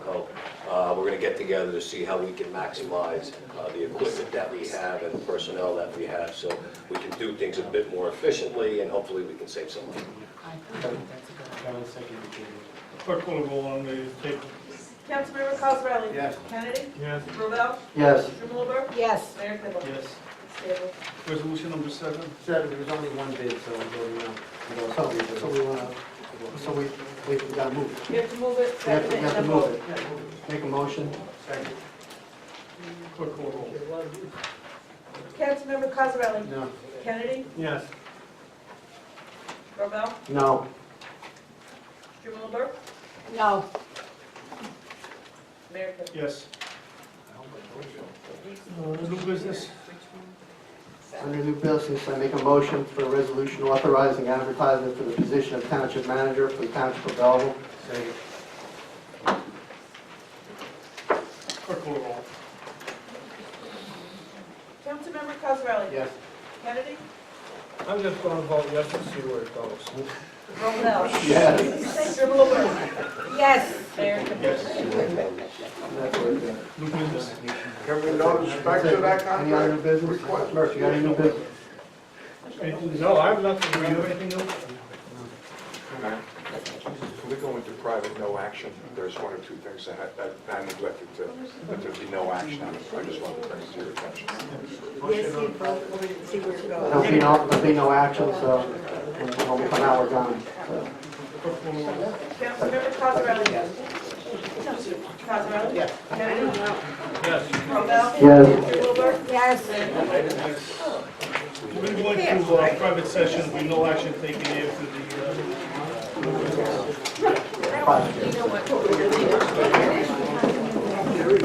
Uh, We're going to get together to see how we can maximize uh, the equipment that we have and the personnel that we have, so we can do things a bit more efficiently, and hopefully we can save some money. Kevin seconded it. Clerk will roll on the table. Councilmember Cosarelli? Yes. Kennedy? Yes. Rovell? Yes. Strumelberg? Yes, Mayor Kibble? Yes. Stable. Resolution number seven. Said there was only one bid, so I'm voting no. So so we want to, so we, we got to move. You have to move it, We have second to, it, and we have to then move vote. it. Make a motion. Second. Clerk will roll. Councilmember Cosarelli? No. Kennedy? Yes. Rovell? No. Strumelberg? no, Mayor Kibble? Yes. Uh, New business. Under new business, I make a motion for a resolution authorizing advertisement for the position of township manager for the township of Belleville. Second. Clerk will roll. Councilmember Cosarelli? Yes. Kennedy? I'm just gonna vote yes and see where it goes. Rovell? Yes. Strumelberg? yes. Mayor Kibble? Yes. That's what it is. New business. Can we note respect to that Any other contract? business? Request. Mercy, you got any new business? Anything- No, I have nothing. Do you have anything else? Can we go into private, no action? There's one or two things that I- that I neglected to, that there'd be no action on it. I just wanted to bring it to your attention. Yes, you vote, we're gonna see where it There'll goes. be no, there'll be no action, so when we come out, we're gone. So, Clerk will roll. Councilmember Cosarelli? Cosarelli? Yes. Kennedy? Yes. Rovell? Yes. Strumelberg? Yes, We're going to go into uh, private session. We no action taken after the, uh, Five. you know what?